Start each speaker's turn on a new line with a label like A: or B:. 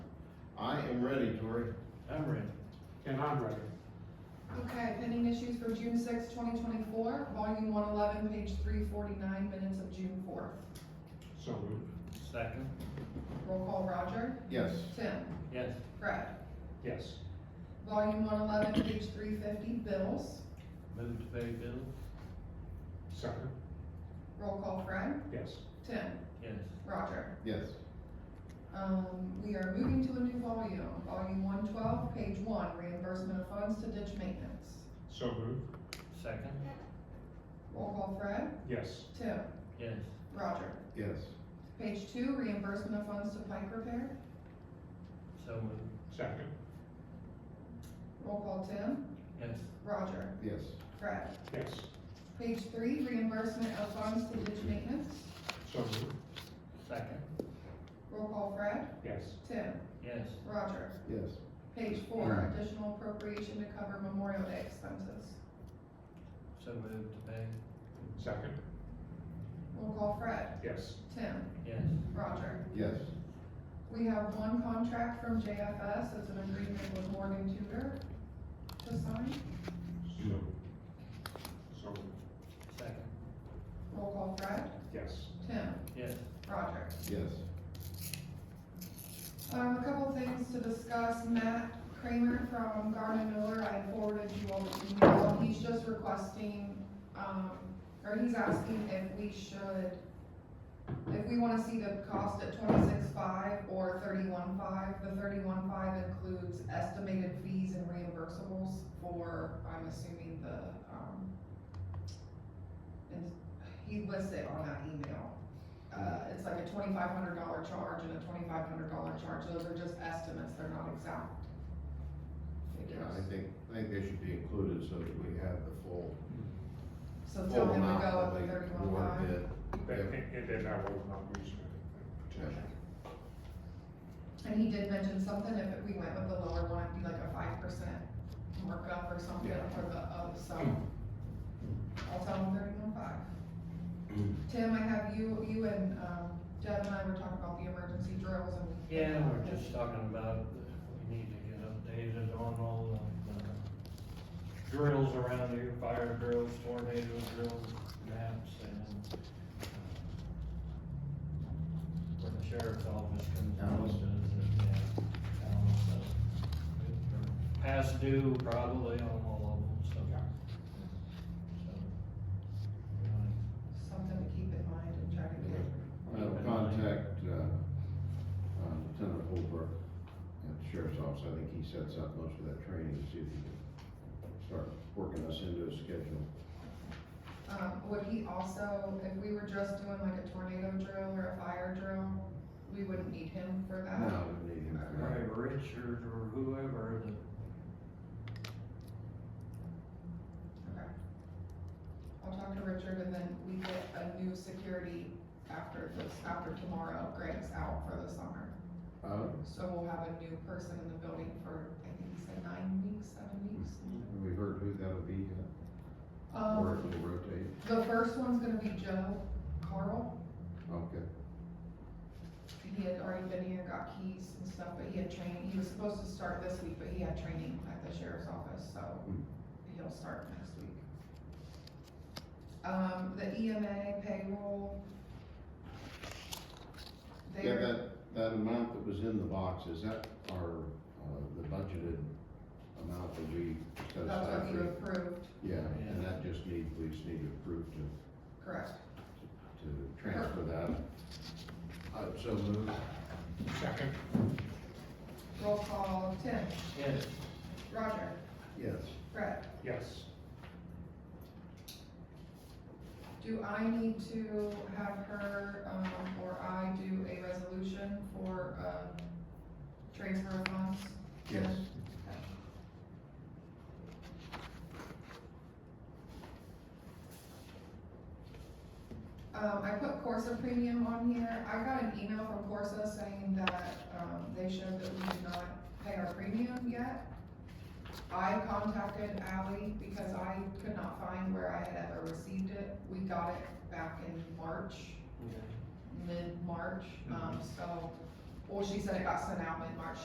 A: I'm ready, Tori.
B: I'm ready.
C: And I'm ready.
D: Okay, pending issues for June sixth, twenty twenty-four, volume one eleven, page three forty-nine, minutes of June fourth.
C: So moved.
B: Second.
D: Roll call Roger,
A: Yes.
D: Tim,
B: Yes.
D: Fred.
C: Yes.
D: Volume one eleven, page three fifty, bills.
B: Move to pay bills?
C: Second.
D: Roll call Fred,
C: Yes.
D: Tim,
B: Yes.
D: Roger.
A: Yes.
D: Um, we are moving to a new volume, volume one twelve, page one, reimbursement of funds to ditch maintenance.
C: So moved.
B: Second.
D: Roll call Fred,
C: Yes.
D: Tim,
B: Yes.
D: Roger.
A: Yes.
D: Page two, reimbursement of funds to pipe repair.
B: So moved.
C: Second.
D: Roll call Tim,
B: Yes.
D: Roger,
A: Yes.
D: Fred.
C: Yes.
D: Page three, reimbursement of funds to ditch maintenance.
C: So moved.
B: Second.
D: Roll call Fred,
C: Yes.
D: Tim,
B: Yes.
D: Roger.
A: Yes.
D: Page four, additional appropriation to cover Memorial Day expenses.
B: So move to pay?
C: Second.
D: Roll call Fred,
C: Yes.
D: Tim,
B: Yes.
D: Roger.
A: Yes.
D: We have one contract from JFS as an agreement with Morgan Tudor to sign.
C: So moved. So moved.
B: Second.
D: Roll call Fred,
C: Yes.
D: Tim,
B: Yes.
D: Roger.
A: Yes.
D: Um, a couple things to discuss, Matt Kramer from Garner Miller, I forwarded you all the email, he's just requesting, um, or he's asking if we should, if we wanna see the cost at twenty-six five or thirty-one five, the thirty-one five includes estimated fees and reimbursables for, I'm assuming the, um, and he lists it on that email, uh, it's like a twenty-five hundred dollar charge and a twenty-five hundred dollar charge, those are just estimates, they're not exact
A: Yeah,
D: figures.
A: I think, I think they should be included so that we have the full.
D: So
A: full
D: tell him to
A: amount
D: go
A: that
D: with
A: we
D: the thirty-one
A: award
D: five.
A: bid.
C: That- And and then I will not lose anything.
D: And he did mention something, if we went with the lower one, it'd be like a five percent markup or something
A: Yeah. Hmm.
D: for the, of some. I'll tell him thirty-one five.
A: Hmm.
D: Tim, I have you, you and, um, Deb and I were talking about the emergency drills and.
B: Yeah, we're just talking about, we need to get updated on all the uh, drills around here, fire drills, tornado drills, maps and. uh, When the sheriff's office comes out,
A: Alice.
B: does it, yeah. Alice, so, we're Past due probably on all of them, so.
C: Yeah.
B: so, we're
D: Something to keep in mind and try to get.
A: I'll contact, uh, uh, Lieutenant Holbrook at the Sheriff's Office. I think he sets up most of that training, to see if he can start working us into a schedule.
D: Um, would he also, if we were just doing like a tornado drill or a fire drill, we wouldn't need him for that?
A: No, we need him for
B: gonna-
A: that.
B: Right, Richard or whoever, the
D: Okay. I'll talk to Richard and then we get a new security after this, after tomorrow, Greg's out for the summer.
A: Uh,
D: So we'll have a new person in the building for, I think he said nine weeks, seven weeks.
A: Uh, have we heard who that'll be, uh, yet? or if
D: Um,
A: we rotate?
D: the first one's gonna be Joe Carl.
A: Okay,
D: He had already been here, got keys and stuff, but he had training, he was supposed to start this week, but he had training at the sheriff's office, so
A: Hmm.
D: he'll start next week. Um, the EMA payroll.
A: yeah,
D: They're,
A: that, that amount that was in the box, is that our, uh, the budgeted amount that we set
D: that's
A: aside
D: what you
A: for?
D: approved,
A: Yeah, and that just need, we just need to approve to
D: correct.
A: to transfer that. I would so move.
C: Second.
D: Roll call, Tim,
B: Yes,
D: Roger,
A: Yes.
D: Brett,
C: Yes.
D: do I need to have her, um, or I do a resolution for, uh, transfer of funds?
A: Yes.
D: Um, I put Corsa premium on here, I got an email from Corsa saying that, um, they showed that we did not pay our premium yet. I contacted Ally because I could not find where I had ever received it, we got it back in March,
B: yeah.
D: mid-March, um, so, well, she said it got sent out mid-March,